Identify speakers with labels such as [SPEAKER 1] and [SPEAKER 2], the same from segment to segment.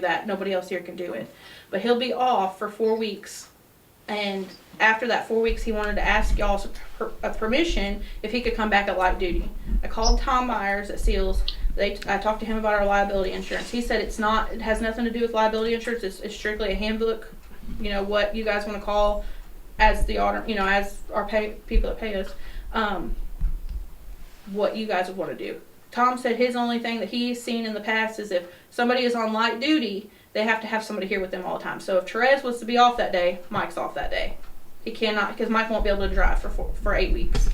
[SPEAKER 1] that. Nobody else here can do it. But he'll be off for four weeks. And after that four weeks, he wanted to ask y'all's per- uh, permission if he could come back at light duty. I called Tom Myers at Seals. They, I talked to him about our liability insurance. He said it's not, it has nothing to do with liability insurance. It's, it's strictly a handbook, you know, what you guys want to call as the auditor, you know, as our pay, people that pay us, um, what you guys would want to do. Tom said his only thing that he's seen in the past is if somebody is on light duty, they have to have somebody here with them all the time. So if Therese was to be off that day, Mike's off that day. He cannot because Mike won't be able to drive for four, for eight weeks.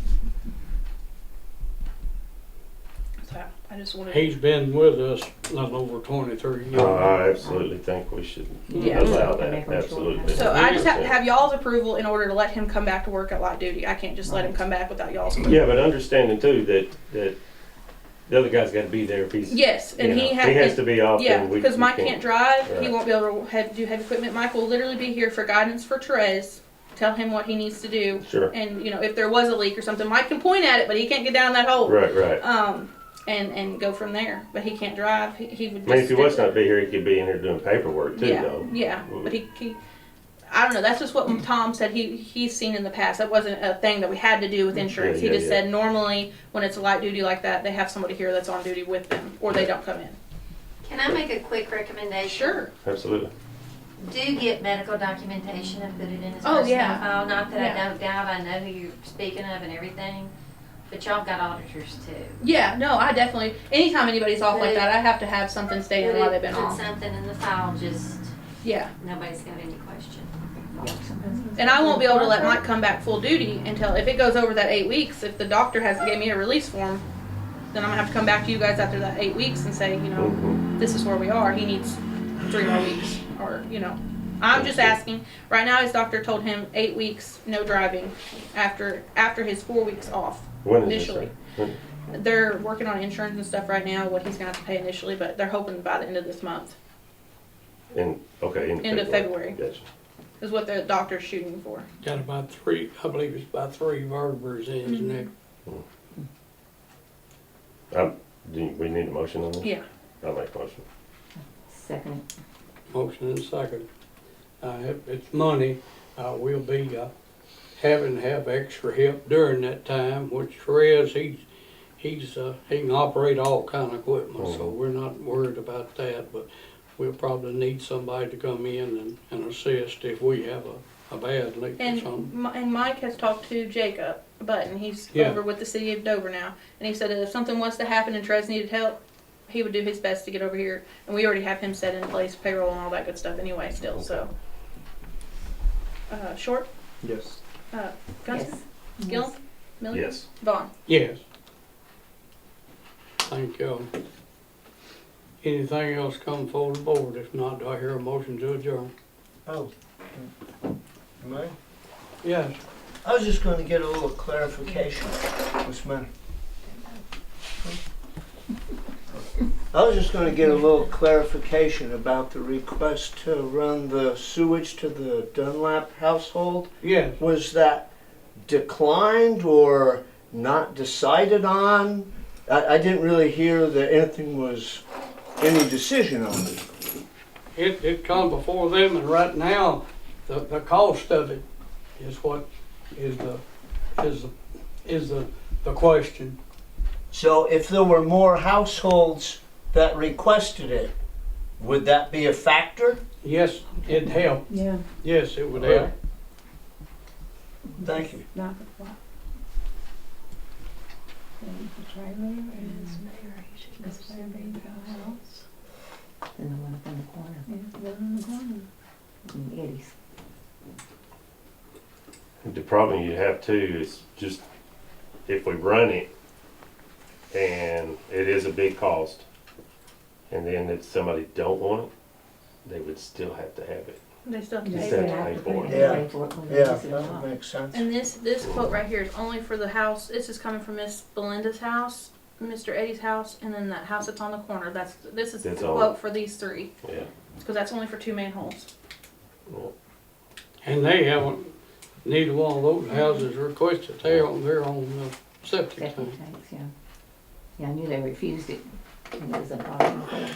[SPEAKER 1] So I just wanted.
[SPEAKER 2] He's been with us a little over 23 years.
[SPEAKER 3] Oh, I absolutely think we should
[SPEAKER 1] Yeah.
[SPEAKER 3] allow
[SPEAKER 4] Make
[SPEAKER 3] that,
[SPEAKER 4] them short.
[SPEAKER 3] absolutely.
[SPEAKER 1] so I just have to have y'all's approval in order to let him come back to work at light duty. I can't just let him come back without y'all's. approval.
[SPEAKER 3] Yeah, but understanding too that, that the other guy's gotta be there if he's.
[SPEAKER 1] Yes, and
[SPEAKER 3] you know,
[SPEAKER 1] he, ha-
[SPEAKER 3] has to be off.
[SPEAKER 1] Yeah,
[SPEAKER 3] and we-
[SPEAKER 1] because
[SPEAKER 3] we
[SPEAKER 1] Mike can't drive. He
[SPEAKER 3] Right.
[SPEAKER 1] won't be able to have, do heavy equipment. Mike will literally be here for guidance for Therese. Tell him what he needs to do.
[SPEAKER 3] Sure,
[SPEAKER 1] And, you know, if there was a leak or something, Mike can point at it, but he can't get down that hole.
[SPEAKER 3] right, right.
[SPEAKER 1] Um, and, and go from there. But he can't drive. He, he would
[SPEAKER 3] I
[SPEAKER 1] just.
[SPEAKER 3] mean, if he
[SPEAKER 1] stick
[SPEAKER 3] was
[SPEAKER 1] with-
[SPEAKER 3] not be here, he could be in here doing paperwork too,
[SPEAKER 1] yeah,
[SPEAKER 3] though.
[SPEAKER 1] Yeah, but he, he, I don't know. That's just what Tom said he, he's seen in the past. That wasn't a thing that we had to do with insurance.
[SPEAKER 3] Yeah,
[SPEAKER 1] he
[SPEAKER 3] yeah,
[SPEAKER 1] just
[SPEAKER 3] yeah.
[SPEAKER 1] said normally when it's a light duty like that, they have somebody here that's on duty with them or they don't come in.
[SPEAKER 5] Can I make a quick recommendation?
[SPEAKER 1] Sure.
[SPEAKER 3] Absolutely.
[SPEAKER 5] Do get medical documentation and put it in his
[SPEAKER 1] Oh,
[SPEAKER 5] personnel
[SPEAKER 1] yeah.
[SPEAKER 5] file. Not that
[SPEAKER 1] Yeah.
[SPEAKER 5] I know, Gav, I know who you're speaking of and everything, but y'all got auditors too.
[SPEAKER 1] Yeah, no, I definitely. Anytime anybody's off like that, I have to have something stated why they've been
[SPEAKER 5] Put
[SPEAKER 1] off.
[SPEAKER 5] something in the file, just
[SPEAKER 1] Yeah,
[SPEAKER 5] nobody's got any question.
[SPEAKER 1] and I won't be able to let Mike come back full duty until if it goes over that eight weeks. If the doctor has gave me a release form, then I'm gonna have to come back to you guys after that eight weeks and say, you know,
[SPEAKER 3] Mhm.
[SPEAKER 1] this is where we are. He needs three more weeks, or you know, I'm just asking. Right now, his doctor told him eight weeks, no driving, after after his four weeks off.
[SPEAKER 3] When is this?
[SPEAKER 1] initially.
[SPEAKER 3] When-
[SPEAKER 1] They're working on insurance and stuff right now, what he's gonna have to pay initially, but they're hoping by the end of this month
[SPEAKER 3] In, okay, in
[SPEAKER 1] End of
[SPEAKER 3] February. Gotcha.
[SPEAKER 1] is what the doctor's shooting for.
[SPEAKER 2] Got about three, I believe it's about three vertebrae in his neck.
[SPEAKER 3] Um, do you- we need a motion on that?
[SPEAKER 1] Yeah.
[SPEAKER 3] I'll make a motion.
[SPEAKER 4] Second.
[SPEAKER 2] Motion and second. Uh, if it's money, uh, we'll be, uh, having to have extra help during that time, which Therese, he's, he's, uh, he can operate all kind of equipment, so we're not worried about that, but we'll probably need somebody to come in and, and assist if we have a, a bad leak or something.
[SPEAKER 1] And, Mi- and Mike has talked to Jacob Button, he's
[SPEAKER 2] Yeah.
[SPEAKER 1] over with the city of Dover now, and he said that if something was to happen and Trez needed help, he would do his best to get over here, and we already have him set in place, payroll and all that good stuff anyway still, so. Uh, Short,
[SPEAKER 6] Yes.
[SPEAKER 1] uh, Gunston,
[SPEAKER 4] Yes.
[SPEAKER 1] Gillum, Miller?
[SPEAKER 3] Yes.
[SPEAKER 1] Vaughn.
[SPEAKER 2] Yes. Thank you. Anything else come forward the board? If not, do I hear a motion to adjourn?
[SPEAKER 6] Oh. Am I?
[SPEAKER 2] Yes.
[SPEAKER 6] I was just going to get a little clarification, Miss Mann. I was just going to get a little clarification about the request to run the sewage to the Dunlap household.
[SPEAKER 2] Yes.
[SPEAKER 6] Was that declined or not decided on? I, I didn't really hear that anything was, any decision on it.
[SPEAKER 2] It, it come before them and right now, the, the cost of it is what is the, is the, is the, the question.
[SPEAKER 6] So if there were more households that requested it, would that be a factor?
[SPEAKER 2] Yes, it'd help.
[SPEAKER 4] Yeah.
[SPEAKER 2] Yes, it would help.
[SPEAKER 6] Thank you.
[SPEAKER 4] Not the plot. And the trailer and this trailer being house.
[SPEAKER 7] And the one up in the corner,
[SPEAKER 4] Yeah, the one in the corner.
[SPEAKER 7] in Eddie's.
[SPEAKER 3] The problem you have too is just if we run it and it is a big cost, and then if somebody don't want it, they would still have to have it.
[SPEAKER 1] They still have to
[SPEAKER 3] Yes,
[SPEAKER 1] pay
[SPEAKER 3] sir.
[SPEAKER 1] that.
[SPEAKER 3] pay for it.
[SPEAKER 6] Yeah.
[SPEAKER 7] Pay for it when they
[SPEAKER 6] Yeah,
[SPEAKER 7] use it
[SPEAKER 6] that
[SPEAKER 7] up.
[SPEAKER 6] would make sense.
[SPEAKER 1] And this, this quote right here is only for the house, this is coming from Miss Belinda's house, Mr. Eddie's house, and then that house that's on the corner, that's, this is the
[SPEAKER 3] That's all.
[SPEAKER 1] quote for these three,
[SPEAKER 3] Yeah.
[SPEAKER 1] because that's only for two manholes.
[SPEAKER 3] yeah.
[SPEAKER 2] And they haven't, neither one of those houses requested, they're on, they're on the septic
[SPEAKER 7] Septic
[SPEAKER 2] tank.
[SPEAKER 7] tanks, yeah. Yeah, I knew they refused it, and it was a problem for them.